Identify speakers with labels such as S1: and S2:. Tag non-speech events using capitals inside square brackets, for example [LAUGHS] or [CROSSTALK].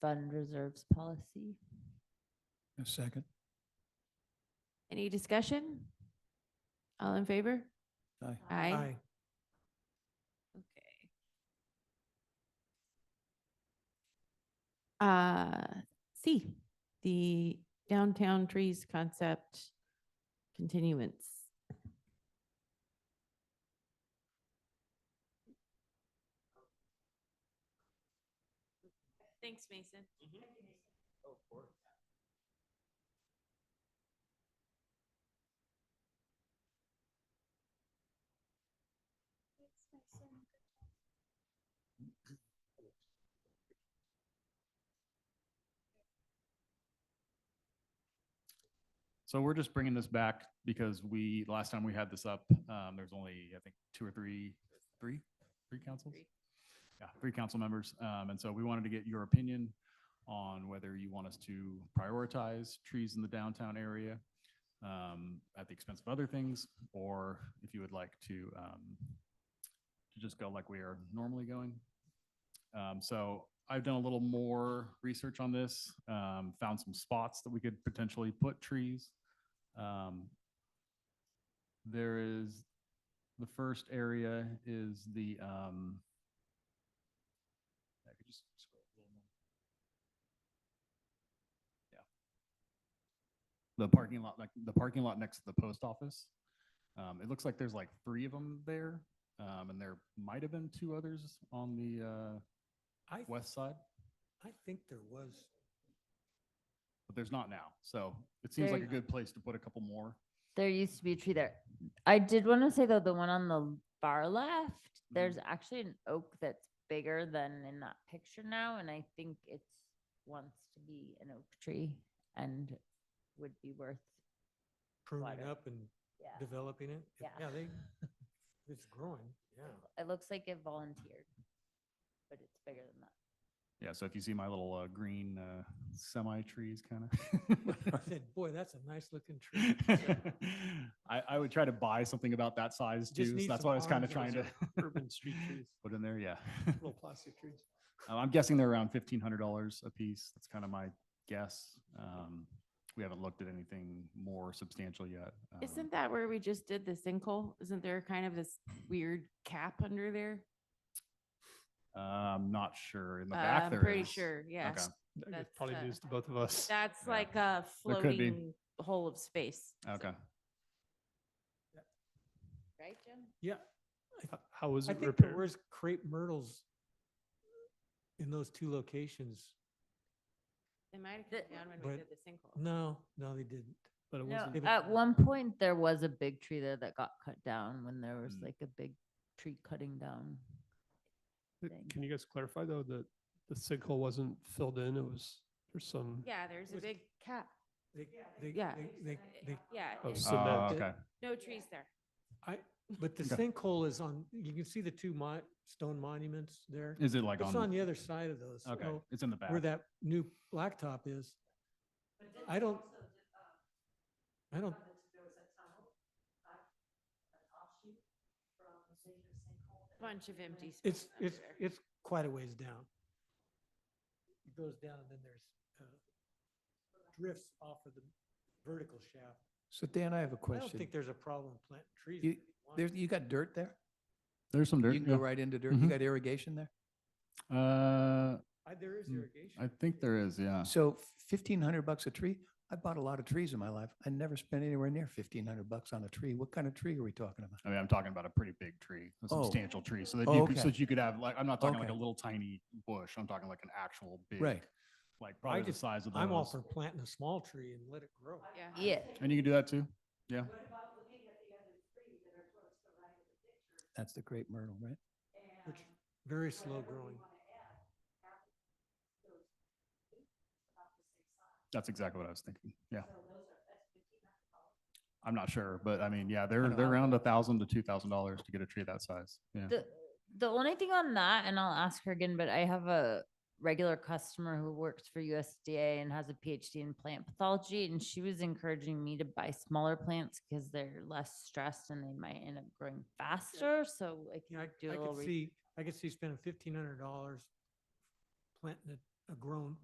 S1: fund reserves policy.
S2: A second.
S3: Any discussion? All in favor?
S2: Aye.
S3: Aye. Okay. Uh, C, the downtown trees concept continuance. Thanks, Mason.
S4: So we're just bringing this back because we, last time we had this up, um, there's only, I think, two or three, three, three councils?
S3: Three.
S4: Yeah, three council members. Um, and so we wanted to get your opinion on whether you want us to prioritize trees in the downtown area um, at the expense of other things, or if you would like to, um, to just go like we are normally going. Um, so I've done a little more research on this, um, found some spots that we could potentially put trees. Um, there is, the first area is the, um, I could just scroll a little more. Yeah. The parking lot, like the parking lot next to the post office. Um, it looks like there's like three of them there. Um, and there might have been two others on the, uh,
S5: I, th-
S4: west side,
S5: I think there was,
S4: but there's not now. So it seems like a
S1: Very-
S4: good place to put a couple more.
S1: There used to be a tree there. I did want to say though, the one on the far left, there's actually an oak that's bigger than in that picture now, and I think it's wants to be an oak tree and would be worth.
S5: pruning
S1: Water.
S5: up and
S1: Yeah,
S5: developing it. It-
S1: Yeah.
S5: Yeah, they, it's growing, yeah.
S1: it looks like it volunteered, but it's bigger than that.
S4: Yeah. So if you see my little, uh, green, uh, semi trees kind of. [LAUGHS]
S5: I said, boy, that's a nice looking tree.
S4: I, I would try to buy something about that size
S5: Just
S4: too. So
S5: need
S4: that's
S5: some
S4: what I was kind of
S5: arms
S4: trying
S5: and
S4: to.
S5: Urban street trees,
S4: [LAUGHS] Put in there, yeah.
S5: little plastic trees.
S4: Um, [LAUGHS] I'm guessing they're around fifteen hundred dollars a piece. That's kind of my guess. Um, we haven't looked at anything more substantial yet. um,
S3: Isn't that where we just did the sinkhole? Isn't there kind of this weird cap under there?
S4: Uh, I'm not sure. In the
S3: Uh,
S4: back
S3: I'm
S4: there
S3: pretty
S4: is.
S3: sure, yeah.
S4: Okay.
S3: That's,
S6: Probably
S3: uh,
S6: news to both of us.
S3: That's
S4: Yeah.
S3: like a
S4: There could be.
S3: floating hole of space. so-
S4: Okay.
S1: Right, Jim?
S5: Yeah,
S6: H- How was
S5: I
S6: it
S5: think there
S6: repaired?
S5: was crepe myrtles in those two locations.
S3: They might have
S1: The-
S3: come down when we
S5: But-
S3: did the sinkhole.
S5: No, no, they didn't.
S6: But it
S1: No,
S6: wasn't.
S5: If it-
S1: at one point, there was a big tree there that got cut down when there was
S4: Mm.
S1: like a big tree cutting down. thing.
S6: Can you guys clarify though, that the sinkhole wasn't filled in? It was, there's some,
S3: Yeah, there's a
S5: was-
S3: big cap.
S5: They, they,
S3: Yeah.
S5: they, they, they,
S3: Yeah,
S6: Oh,
S3: it-
S6: so-
S4: Uh,
S6: Cement.
S4: okay.
S3: no trees there.
S5: I, but the
S4: Okay.
S5: sinkhole is on, you can see the two mon, stone monuments there.
S4: Is it like
S5: It's on
S4: on?
S5: the other side of those.
S4: Okay,
S5: so-
S4: it's in the back.
S5: where that new blacktop is. I don't,
S3: uh,
S5: I don't.
S3: Bunch of empty space.
S5: It's,
S3: under
S5: it's,
S3: there.
S5: it's quite a ways down. It goes down and then there's uh, drifts off of the vertical shaft.
S7: So Dan, I have
S5: I
S7: a
S5: don't
S7: question.
S5: think there's a problem planting trees.
S7: You-
S5: if you want
S7: There's,
S5: to.
S7: you got dirt there?
S4: There's some dirt.
S7: You can go
S4: yeah.
S7: right into dirt. You
S4: Mhm.
S7: got irrigation there?
S4: Uh,
S5: I- There is
S4: Mm,
S5: irrigation.
S4: I think there is, yeah.
S7: So fifteen hundred bucks a tree? I bought a lot of trees in my life. I never spent anywhere near fifteen hundred bucks on a tree. What kind of tree are we talking about?
S4: I mean, I'm talking about a pretty big tree, a
S7: Oh.
S4: substantial tree, so that
S7: Oh,
S4: you could, so
S7: okay.
S4: that you could have, like, I'm not talking like a
S7: Okay.
S4: little tiny bush, I'm talking like an actual big.
S7: Right.
S4: Like probably the
S5: just-
S4: size of
S5: I'm all
S4: those.
S5: for planting a small tree and let it grow.
S3: Yeah.
S1: Yeah,
S4: And you can do that too? Yeah.
S7: That's the great myrtle, right?
S5: Which, very slow growing.
S4: That's exactly what I was thinking. Yeah. I'm not sure, but I mean, yeah, they're,
S7: Kinda
S4: they're
S7: wild.
S4: around a thousand to two thousand dollars to get a tree that size. Yeah.
S1: The the only thing on that, and I'll ask her again, but I have a regular customer who works for USDA and has a PhD in plant pathology, and she was encouraging me to buy smaller plants because they're less stressed and they might end up growing faster. So I
S5: Yeah,
S1: can
S5: I,
S1: do a
S5: I
S1: little.
S5: could
S1: re-
S5: see, I could see spending fifteen hundred dollars planting a, a grown